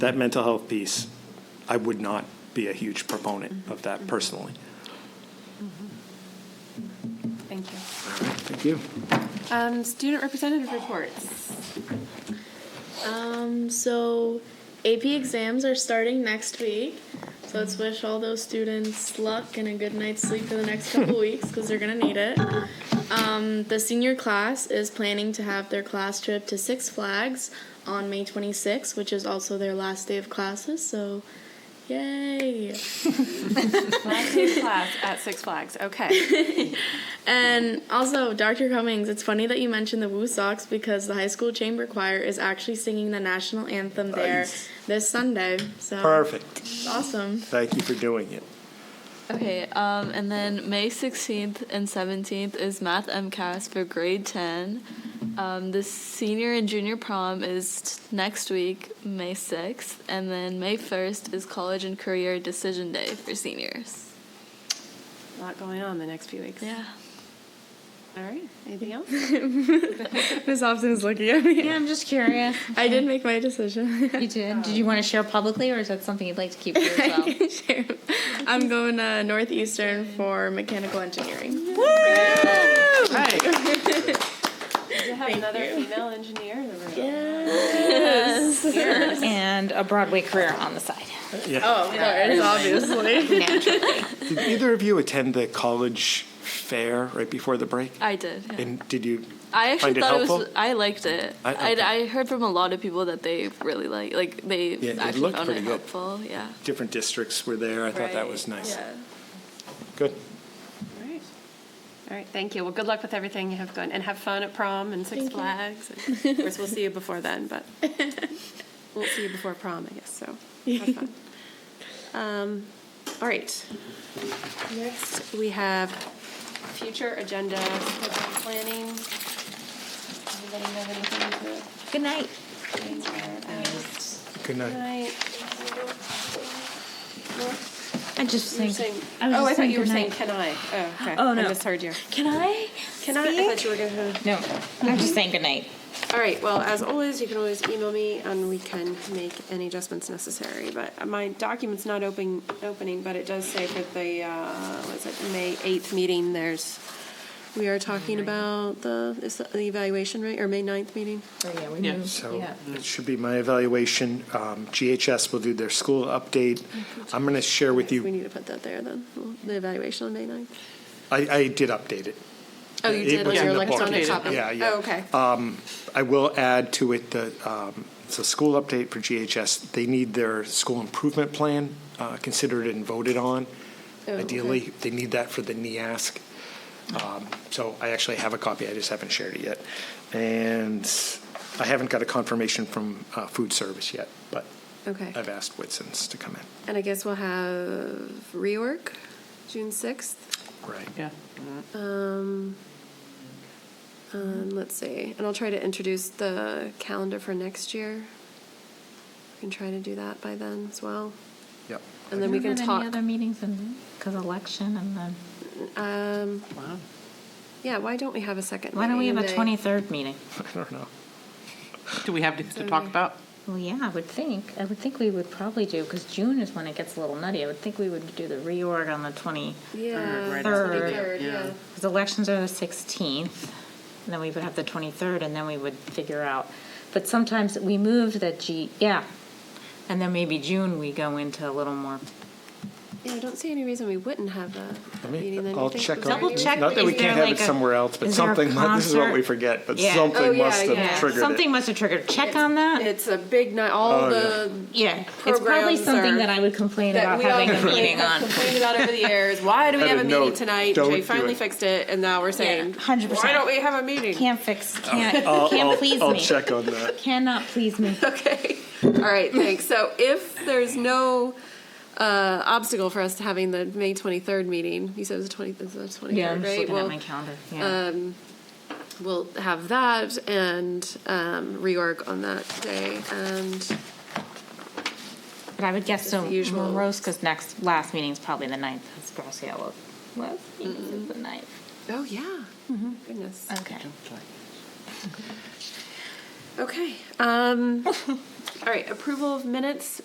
that mental health piece, I would not be a huge proponent of Mm-hmm. that personally. Thank you. Thank you. Um, student representative reports. Um, so AP exams are starting next week. So let's wish all those students luck and a good night's sleep for the next couple weeks because they're going to need it. Um, the senior class is planning to have their class trip to Six Flags on May 26th, which is also their last day of classes. So, yay! Last day of class at Six Flags. Okay. And also, Dr. Cummings, it's funny that you mentioned the Woo Sox because the high school chamber choir is actually singing the national anthem there Nice. this Sunday. So Perfect. It's awesome. Thank you for doing it. Okay, um, and then May 16th and 17th is Math MCAS for grade 10. Um, the senior and junior prom is t- next week, May 6th, and then May 1st is college and career decision day for seniors. A lot going on the next few weeks. Yeah. All right. Anything else? Miss Hobson is looking at me. Yeah, I'm just curious. I did make my decision. You did. Did you want to share publicly, or is that something you'd like to keep for yourself? Sure. I'm going to Northeastern for mechanical engineering. You have another female engineer in the room. and a Broadway career on the side. Oh, of course, obviously. Naturally. Did either of you attend the college fair right before the break? I did. yeah. And did you? I actually find it thought it, was. helpful? I liked it. I- I, okay. I, heard from a lot of people that they really like. Like they Yeah, it actually looked found pretty it good. helpful. Yeah. Different districts were there. I thought that Right, was nice. Yeah. Good. All right. All right. Thank you. Well, good luck with everything you have going, and have fun at prom and Six Flags. And of course, we'll see you before then, but we'll see you before prom, I guess. So have fun. Um, all right. Next, we have future agenda planning. Anybody have anything to? Good night. Good night. I just You were think. saying, I was oh, just I thought saying you were good saying, night. can I? Oh, okay. Oh, I no. misheard you. Can I? Can I? I thought you were going to. No. I'm just saying good night. All right, well, as always, you can always email me and we can make any adjustments necessary. But my document's not open, opening, but it does say for the, uh, was it May 8th meeting, there's, we are talking about the, is the evaluation, right, or May 9th meeting? Oh, yeah, we So it should be my evaluation. Um, GHS will do their school update. Mm-hmm. I'm going to share with We you. need to put that there then, the evaluation on May 9th. I, I did update it. Oh, you It did on was your in the book. electronic copy? Yeah, yeah. Uh, Oh, okay. I will add to it the, um, it's a school update for GHS. They need their school improvement plan uh, considered and voted on. Oh, okay. Ideally, they need that for the NEASC. Um, So I actually have a copy, I just haven't shared it yet. And I haven't got a confirmation from uh, food service yet, but Okay. I've asked Whitson's to come in. And I guess we'll have rework, June 6th. Right. Um, um, let's see, and I'll try to introduce the calendar for next year. We can try to do that by then as well, Yep. and then we can Any talk. other meetings in because election and then Um, yeah, why don't we have a second? why don't we have a meeting in twenty May? third meeting? I don't know. Do we have to, to talk about? Well, yeah, I would think. I would think we would probably do because June is when it gets a little nutty. I would think we would do the reorg on the twenty Yeah, Right after the- twenty-third, yeah. yeah. Because elections are the 16th, and then we would have the 23rd, and then we would figure out. But sometimes we move that G, yeah. And then maybe June, we go into a little more. Yeah, I don't see any reason we wouldn't have a- a me- meeting then. You I'll think check it was on- already Double check Not that we Is can't there have it like a- somewhere else, but is there a something, this is what we concert? forget, but Yeah. Oh, something yeah, must have yeah. triggered Something it. must have triggered. Check on that. It's a big night, all Oh, the. Yeah, it's probably programs something are- that I would complain that about we all having a complain- meeting on. complained about over the years. Why do we Had have a a meeting note, tonight? don't Jay do finally it. fixed it, and now we're saying, 100%. why don't we have a meeting? Can't fix, can't, Oh. I'll- can't I'll- please I'll me. check on that. Cannot please me. Okay. All right, thanks. So if there's no uh, obstacle for us to having the May 23rd meeting, you said it was the 20th, it's the 23rd, Yeah, I'm just right? looking Well, um, at my calendar. Yeah. We'll have that and um, reorg on that day. And But I would guess so. the usual. Moroska's next, last meeting's probably the 9th. That's Graciela. Last meeting is the 9th. oh, yeah. Mm-hmm. Goodness. Okay. Okay. Um, All right, approval of minutes